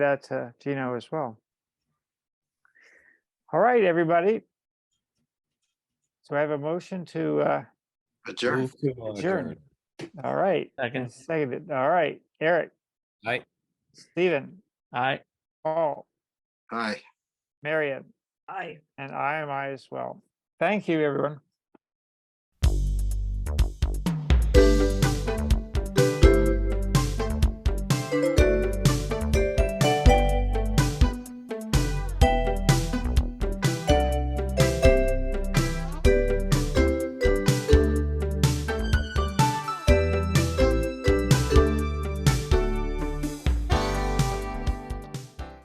that uh, to Gino as well. All right, everybody. So I have a motion to, uh, Adjourn. Move to uh, Adjourn. all right, Second, seconded, all right, Eric. Aye. Stephen, aye. Paul, Hi. Marion, Aye. and I am I as well. Thank you, everyone.